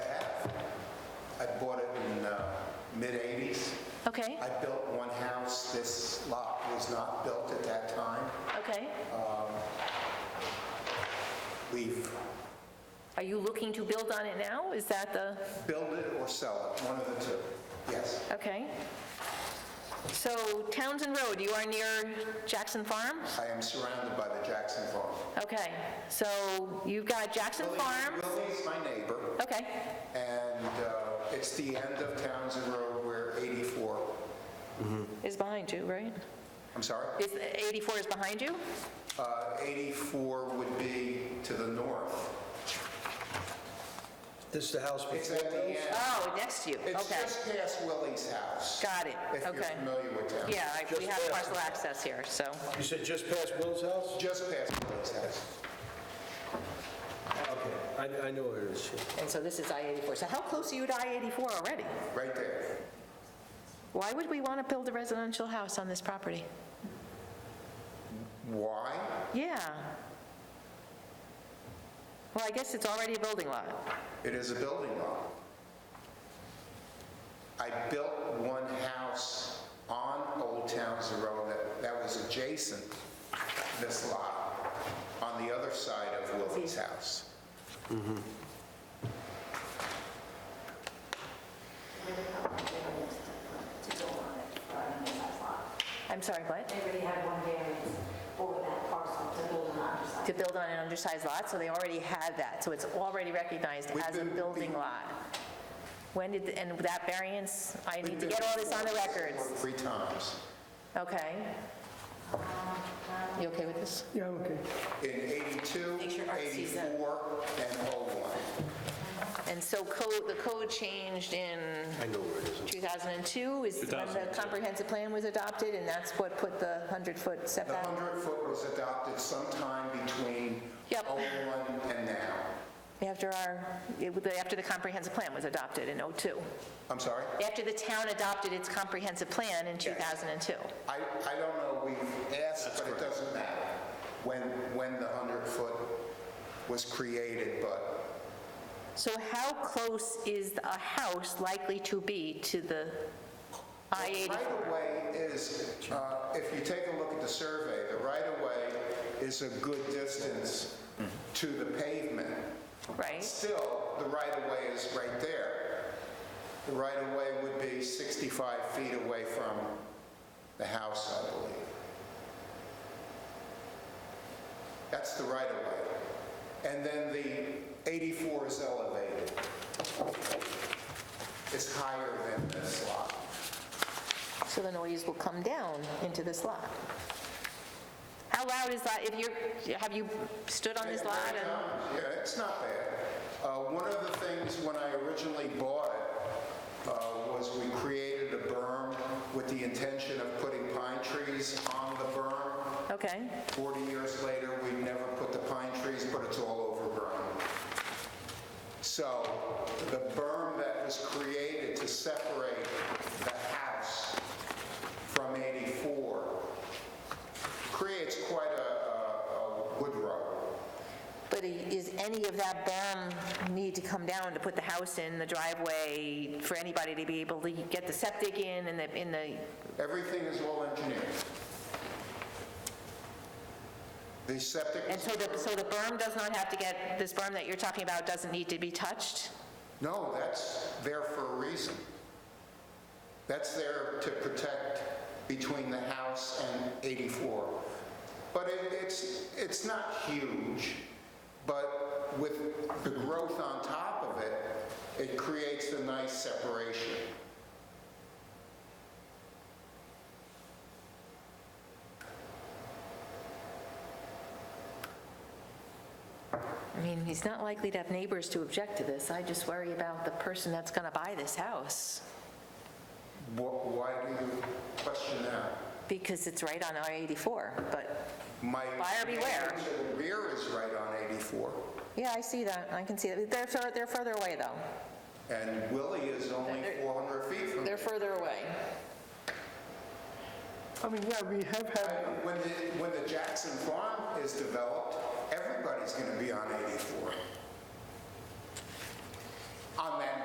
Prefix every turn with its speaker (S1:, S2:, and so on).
S1: mid-'80s.
S2: Okay,
S1: I built one house, this lot was not built at that time.
S2: okay.
S1: We've
S2: Are you looking to build on it now? Is that the,
S1: built it or sell it, one of the two, yes.
S2: okay. So Townsend Road, you are near Jackson Farm?
S1: I am surrounded by the Jackson Farm.
S2: Okay, so you've got Jackson Farm,
S1: Willie is my neighbor,
S2: okay,
S1: and uh, it's the end of Townsend Road where 84,
S2: is behind you, right?
S1: I'm sorry,
S2: Is, 84 is behind you?
S1: uh, 84 would be to the north.
S3: This is the house
S1: It's at
S3: before
S1: the end,
S2: Oh, next to you,
S1: it's
S2: okay.
S1: just past Willie's house.
S2: Got it,
S1: If you're
S2: okay.
S1: familiar with Townsend.
S2: Yeah, I- we
S3: Just
S2: have
S3: there.
S2: parcel access here, so,
S3: You said just past Will's house?
S1: Just past Willie's house.
S3: Okay, I, I know where it is. yeah.
S2: and so this is I-84. So how close are you to I-84 already?
S1: Right there.
S2: Why would we want to build a residential house on this property?
S1: Why?
S2: Yeah. Well, I guess it's already a building lot.
S1: It is a building lot. I built one house on Old Townsend Road that, that was adjacent this lot, on the other side of Willie's house.
S2: I'm sorry, what?
S4: They already had one variance for that parcel to build an undersized.
S2: To build on an undersized lot, so they already had that, so it's already recognized
S1: We've
S2: as a
S1: been-
S2: building lot. When did, and that variance, I need to get all this on the record.
S1: Three times.
S2: Okay? You okay with this?
S1: In 82,
S2: Make sure Art sees that.
S1: 84, and 01.
S2: And so code, the code changed in
S3: I know where it is.
S2: 2002, is when the comprehensive plan was adopted, and that's what put the 100-foot
S1: The
S2: setback.
S1: 100-foot was adopted sometime between
S2: Yep.
S1: 01 and now.
S2: After our, it was after the comprehensive plan was adopted in '02.
S1: I'm sorry?
S2: After the town adopted its comprehensive plan in 2002.
S1: I, I don't know, we've asked, but it doesn't matter when, when the 100-foot was created, but
S2: So how close is a house likely to be to the I-80?
S1: right-of-way is, uh, if you take a look at the survey, the right-of-way is a good distance to the pavement.
S2: Right,
S1: Still, the right-of-way is right there. The right-of-way would be 65 feet away from the house, I believe. That's the right-of-way. And then the 84 is elevated. It's higher than this lot.
S2: so the noise will come down into this lot. How loud is that, if you're, have you stood on this lot and,
S1: Yeah, it's not bad. Uh, One of the things, when I originally bought it, uh, was we created a berm with the intention of putting pine trees on the berm.
S2: okay,
S1: 40 years later, we never put the pine trees, but it's all overgrown. So the berm that was created to separate the house from 84 creates quite a- a a wood row.
S2: but i- is any of that berm need to come down to put the house in, the driveway, for anybody to be able to get the septic in and the, in the,
S1: Everything is well engineered. The septic,
S2: and so the, so the berm does not have to get, this berm that you're talking about doesn't need to be touched?
S1: no, that's there for a reason. That's there to protect between the house and 84. But it- it's, it's not huge, but with the growth on top of it, it creates a nice separation.
S2: I mean, he's not likely to have neighbors to object to this. I just worry about the person that's going to buy this house,
S1: Wh- Why do you question that?
S2: because it's right on I-84, but,
S1: My
S2: Buyer beware.
S1: The rear is right on 84.
S2: yeah, I see that, I can see that. They're, fur- they're further away, though.
S1: And Willie is only 400 feet from
S2: They're
S1: it.
S2: further away.
S5: I mean, yeah, we have had,
S1: When the, when the Jackson Farm is developed, everybody's going to be on 84.